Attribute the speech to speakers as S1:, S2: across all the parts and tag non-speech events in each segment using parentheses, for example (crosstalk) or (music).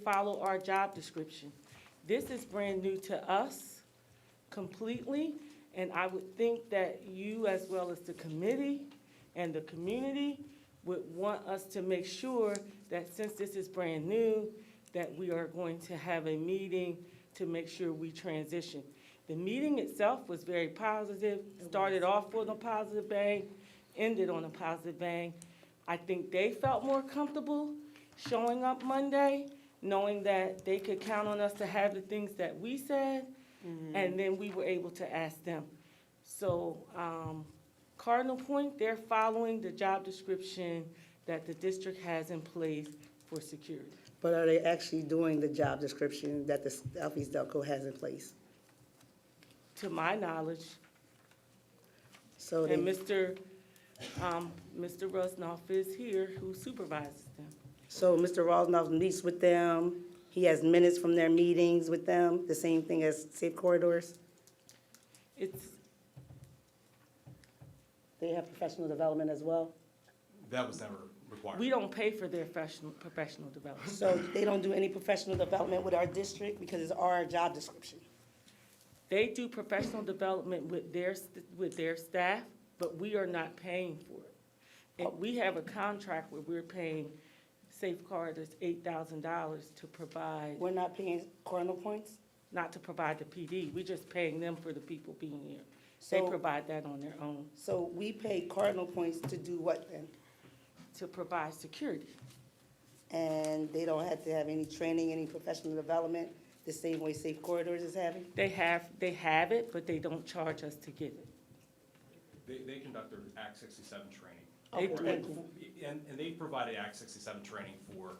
S1: follow our job description. This is brand new to us completely, and I would think that you, as well as the committee and the community, would want us to make sure that since this is brand new, that we are going to have a meeting to make sure we transition. The meeting itself was very positive, started off with a positive bang, ended on a positive bang. I think they felt more comfortable showing up Monday, knowing that they could count on us to have the things that we said, and then we were able to ask them. So, um, Cardinal Point, they're following the job description that the district has in place for security.
S2: But are they actually doing the job description that the Southeast Delco has in place?
S1: To my knowledge,
S2: So
S1: and
S2: they,
S1: Mr., um, Mr. Rusnoff is here who supervises them.
S2: so Mr. Rosnoff meets with them, he has minutes from their meetings with them, the same thing as safe corridors?
S1: It's,
S2: They have professional development as well?
S3: That was never required.
S1: we don't pay for their professional, professional development.
S2: So they don't do any professional development with our district because it's our job description?
S1: They do professional development with their, st- with their staff, but we are not paying for it. And we have a contract where we're paying safeguarders eight thousand dollars to provide,
S2: We're not paying cardinal points?
S1: not to provide the PD, we're just paying them for the people being here. They
S2: So-
S1: provide that on their own,
S2: So we pay cardinal points to do what then?
S1: to provide security.
S2: And they don't have to have any training, any professional development, the same way safe corridors is having?
S1: They have, they have it, but they don't charge us to get it.
S3: They, they conduct their Act sixty-seven training.
S4: Oh,
S1: They-
S3: Or-
S1: they-
S3: And, and they provided Act sixty-seven training for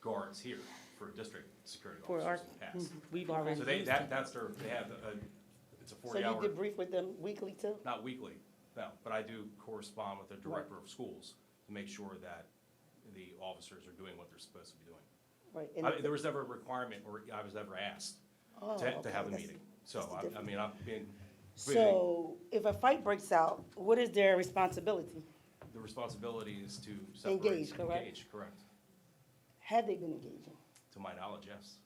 S3: guards here, for district security
S1: For our- Mm-hmm.
S3: officers in the
S1: We've
S3: past.
S1: already.
S3: So they,
S1: used
S3: that,
S1: it.
S3: that's their, they have a, it's a
S2: So you
S3: forty-hour,
S2: debrief with them weekly too?
S3: not weekly, no, but I do correspond with the director of schools to make sure that the officers are doing what they're supposed to be doing.
S2: Right.
S3: I mean, there was never a requirement, or I was never asked to, to have a meeting. So,
S2: that's the
S3: I, I
S2: difference.
S3: mean, I'm being, completely-
S2: So if a fight breaks out, what is their responsibility?
S3: the responsibility is to separate.
S2: Engage, correct?
S3: Engage, correct.
S2: Had they been engaging?
S3: To my knowledge, yes.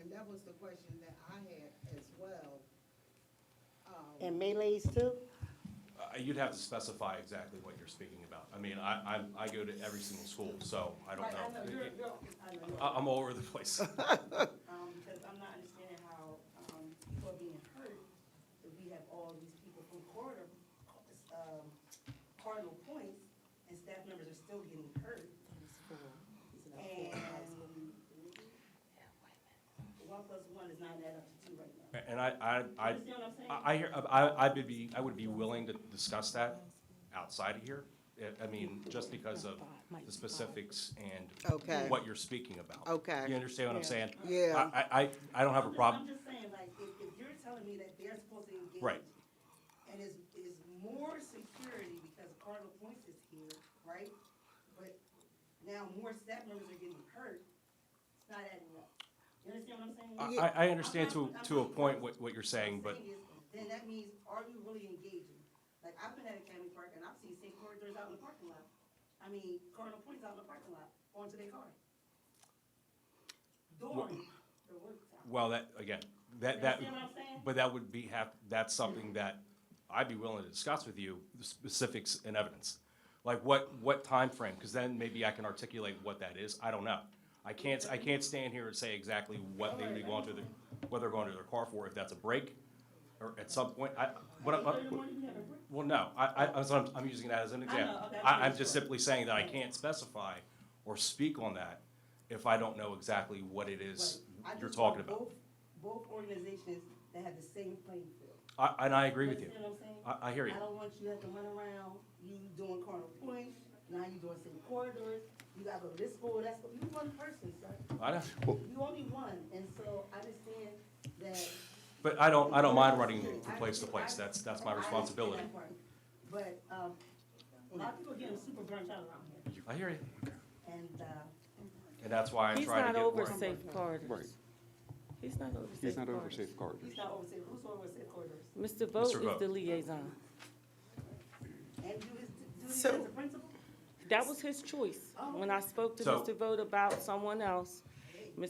S5: And that was the question that I had as well. Um,
S2: And melees too?
S3: Uh, You'd have to specify exactly what you're speaking about. I mean, I, I, I go to every single school, so I don't
S5: right, I know,
S3: know.
S5: you're- you're- I know you're-
S3: I, I'm all over the
S5: (laughs)
S3: place. (laughs)
S4: Um, because I'm not understanding how, um, people are being hurt, if we have all these people from corridor, um, cardinal points, and staff members are still getting hurt. And one plus one is not adding up to two right now.
S3: And I, I, I,
S4: You know what I'm saying?
S3: I, I hear- I, I would be, I would be willing to discuss that outside of here. I- I mean, just because of the specifics
S5: Okay.
S3: and what you're speaking about.
S5: Okay.
S3: You understand what I'm saying?
S5: Yeah.
S3: I- I, I, I don't have a
S4: I'm just-
S3: problem.
S4: I'm just saying, like, if, if you're telling me that they're supposed to engage.
S3: Right.
S4: And it's, it's more security because Cardinal Points is here, right? But now more staff members are getting hurt, it's not adding up. You understand what I'm saying?
S3: I, I- I understand to, to a point what, what you're saying, but
S4: Saying is, Then that means, are you really engaging? Like, I've been at Academy Park and I've seen safe corridors out in the parking lot. I mean, Cardinal Points out in the parking lot, onto their car. During the work time.
S3: Well, that, again, that,
S4: You
S3: that,
S4: understand what I'm saying?
S3: but that would be have, that's something that I'd be willing to discuss with you, the specifics and evidence. Like what, what frame? because then maybe I can articulate what that is, I don't know. I can't, I can't stand here and say exactly what they would be going to the, what they're going to their car for, if that's a break, or at some point, I, what, I-
S4: Thirty one, you have a break.
S3: well, no, I, I, I'm, so- I'm using that as an example.
S4: okay, I
S3: I, I'm
S4: see.
S3: just simply saying that I can't specify or speak on that if I don't know exactly what it is
S4: I
S3: you're
S4: just want
S3: talking about.
S4: Both, both organizations that have the same playing field.
S3: I, and I agree with you.
S4: understand what I'm saying?
S3: I, I hear you.
S4: I don't want you to have to run around, you doing Cardinal Point, now you doing same corridors, you gotta go to this school, that's, school. you one person, sir.
S3: I don't,
S4: You only one, and so I understand that.
S3: but I don't, I don't mind running from place to place. That's, that's my
S4: I understand
S3: responsibility.
S4: that part. But, um, a lot of people getting super burnt out around here,
S3: I hear you.
S4: and, uh,
S3: And that's why I
S1: He's
S3: try to
S1: not
S3: get
S1: over
S3: more.
S1: safe
S6: Right.
S1: corridors. He's not over safe
S6: He's not over
S1: corridors.
S6: safe corridors.
S4: he's not over safe, who's over safe corridors?
S1: Mr. Vogt
S3: Vogt.
S1: is the liaison.
S4: And do his, do his as
S5: So-
S4: a principal?
S1: That was his choice. When I spoke to
S3: So-
S1: Mr. Vogt about someone else,